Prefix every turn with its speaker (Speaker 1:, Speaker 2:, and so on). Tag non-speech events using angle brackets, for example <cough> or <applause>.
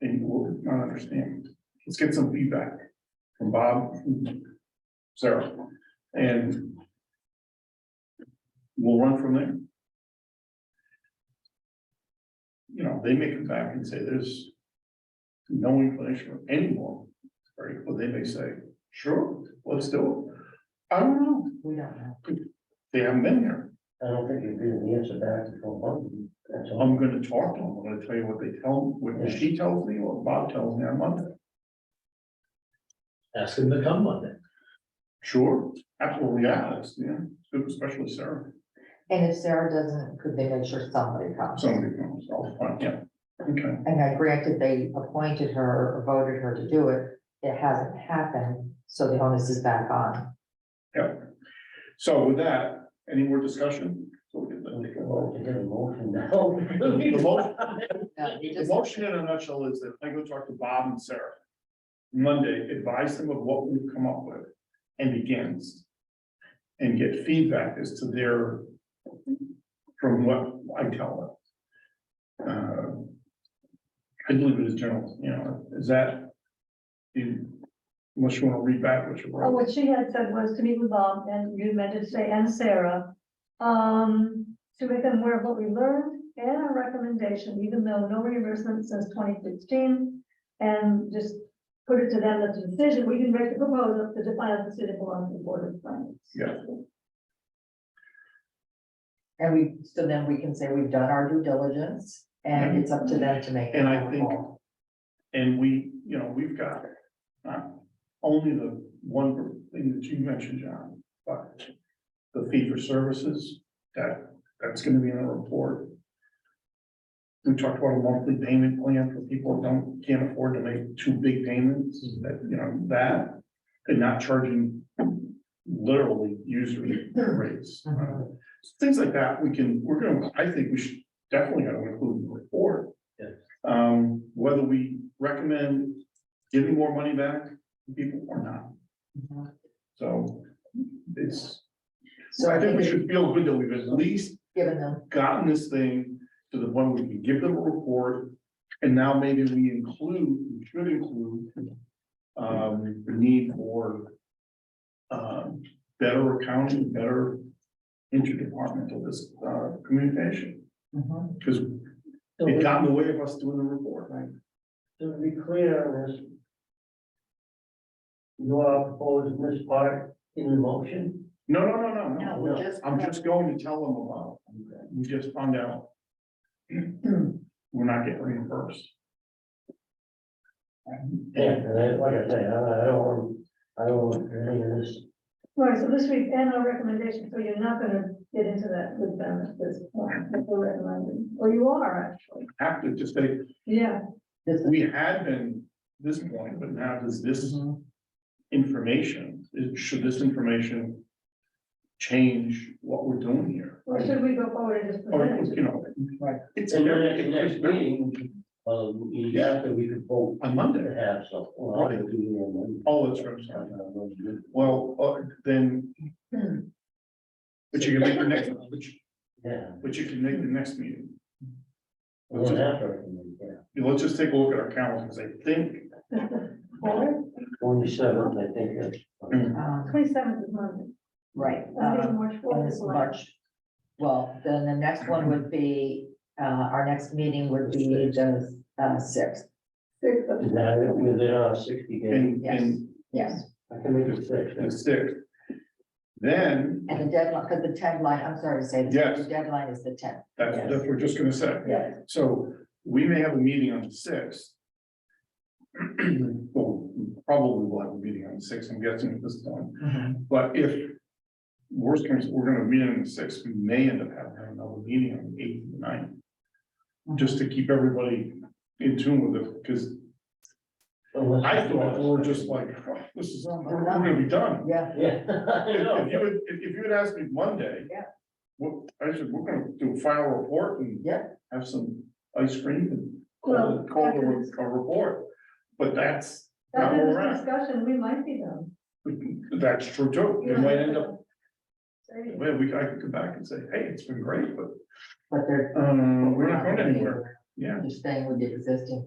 Speaker 1: and we'll not understand. Let's get some feedback from Bob, from Sarah, and we'll run from there. You know, they may come back and say there's no inclination anymore, right? But they may say, sure, let's do it. I don't know,
Speaker 2: We don't know.
Speaker 1: they haven't been here.
Speaker 2: I don't think you're giving the answer back to Phil Bundy. That's all.
Speaker 1: I'm gonna talk to them, I'm gonna tell you what they tell, what she tells me, what Bob tells me on Monday.
Speaker 2: Ask him to come Monday.
Speaker 1: Sure, absolutely, yeah, that's, yeah, especially Sarah,
Speaker 3: And if Sarah doesn't, could they make sure somebody comes?
Speaker 1: somebody comes, I'll find, yeah, okay.
Speaker 3: And I granted they appointed her or voted her to do it, it hasn't happened, so the onus is back on.
Speaker 1: So with that, any more discussion? So we can
Speaker 2: We
Speaker 1: then take a
Speaker 2: can
Speaker 1: vote.
Speaker 2: vote to get a <laughs> motion now.
Speaker 1: The motion,
Speaker 3: No, you
Speaker 1: the
Speaker 3: just-
Speaker 1: motion in a nutshell is that I go talk to Bob and Sarah Monday, advise them of what we've come up with and against. And get feedback as to their, from what I tell them. Uh, I believe it is general, you know, is that? you- Unless you want to read back what you
Speaker 4: Uh,
Speaker 1: wrote,
Speaker 4: What she had said was to meet with Bob, and you meant to say, and Sarah, um, to make them aware of what we learned and our recommendation, even though no reimbursement since twenty fifteen. And just put it to them, that the decision, we can make the proposal to define the city belongs to the board of finance.
Speaker 1: Yeah.
Speaker 3: And we, so then we can say we've done our due diligence and it's up to them to make.
Speaker 1: And I think- and we, you know, we've got. Not only the one thing that you mentioned, John, but uh, the fee for services, that, that's gonna be in the report. We talked about a monthly payment plan for people who don't, can't afford to make two big payments, that, you know, that, and not charging literally usury rates. Uh, Things like that, we can, we're gonna, I think we should definitely gotta include in the report.
Speaker 2: Yes.
Speaker 1: Um, whether we recommend giving more money back to people or not, so it's,
Speaker 3: So
Speaker 1: I think we should feel good that we've at least
Speaker 3: Given them,
Speaker 1: gotten this thing to the point where we can give them a report. And now maybe we include, we should include, um, the need for um, better accounting, better interdepartmental this, uh, communication,
Speaker 3: mhm,
Speaker 1: because
Speaker 2: So
Speaker 1: it
Speaker 2: we-
Speaker 1: got in the way of us doing the report, right?
Speaker 2: To be clear on this. You are proposing this part in the motion?
Speaker 1: No, no, no, no, no,
Speaker 3: No,
Speaker 2: we're
Speaker 3: just-
Speaker 1: I'm just going to tell them about, it. we just found out. <clears throat> We're not getting reimbursed.
Speaker 2: Yeah, and I, like I say, I, I don't want, I don't want any of this.
Speaker 4: Right, so this week, and our recommendation, so you're not gonna get into that with them at this point, what we're recommending, or you are, actually,
Speaker 1: Have to just say,
Speaker 4: yeah.
Speaker 3: this is.
Speaker 1: we had been this point, but now does this
Speaker 3: mhm.
Speaker 1: information, is- should this information change what we're doing here?
Speaker 4: Or should we go forward and just
Speaker 1: Or,
Speaker 4: present it?
Speaker 1: you know, it's,
Speaker 2: And then at the next
Speaker 1: on
Speaker 2: meeting, um, you have to, we could vote to
Speaker 1: Monday,
Speaker 2: have some. well, I would do it on Monday.
Speaker 1: oh, that's right, I'm sorry.
Speaker 2: Uh,
Speaker 1: well, uh, then. But you can make the next, but you-
Speaker 2: Yeah.
Speaker 1: but you can make the next meeting.
Speaker 2: We won't have to recommend, yeah.
Speaker 1: Yeah, Let's just take a look at our calendar, because I think,
Speaker 4: Or
Speaker 2: Twenty-seventh, I think, that's.
Speaker 3: Um,
Speaker 4: twenty-seventh is Monday,
Speaker 3: Right.
Speaker 4: I
Speaker 3: um,
Speaker 1: Uh,
Speaker 4: think March
Speaker 3: on
Speaker 4: fourth
Speaker 3: this
Speaker 4: is March.
Speaker 3: March. Well, then the next one would be, uh, our next meeting would be the, uh, sixth,
Speaker 4: Sixth of-
Speaker 2: Now, within our sixty days,
Speaker 1: and, and
Speaker 3: yes.
Speaker 2: I can make it six.
Speaker 1: the sixth. Then,
Speaker 3: And the deadline, because the deadline, I'm sorry to say this, but the deadline is the tenth.
Speaker 1: that's, that's what we're just gonna say.
Speaker 4: Yeah,
Speaker 1: So we may have a meeting on the sixth. <clears throat> Well, probably we'll have a meeting on the sixth, I'm guessing at this point,
Speaker 3: Mm-hmm.
Speaker 1: but if. Worst comes, we're gonna meet on the sixth, we may end up having another meeting on the eighth and ninth. Just to keep everybody in tune with it, because I thought we were just like, "Oh, this is, we're we're gonna be done.
Speaker 3: Yeah,
Speaker 2: Yeah. <laughs> I
Speaker 1: If you
Speaker 2: know.
Speaker 1: would, if if you would ask me Monday.
Speaker 3: Yeah.
Speaker 1: What, I said, we're gonna do a final report and.
Speaker 3: Yeah.
Speaker 1: Have some ice cream and call,
Speaker 4: Well,
Speaker 1: it- call it
Speaker 4: after this-
Speaker 1: a, a report, but that's,
Speaker 4: after
Speaker 1: Yeah,
Speaker 4: this
Speaker 1: right.
Speaker 4: discussion, we might be done.
Speaker 1: that's true too. It
Speaker 4: You don't
Speaker 1: might
Speaker 4: have
Speaker 1: end
Speaker 4: to-
Speaker 1: up,
Speaker 4: Say,
Speaker 1: well, we, I could come back and say, hey, it's been great, but,
Speaker 3: but they're.
Speaker 1: um, we're not going anywhere, yeah.
Speaker 3: You're staying with the existing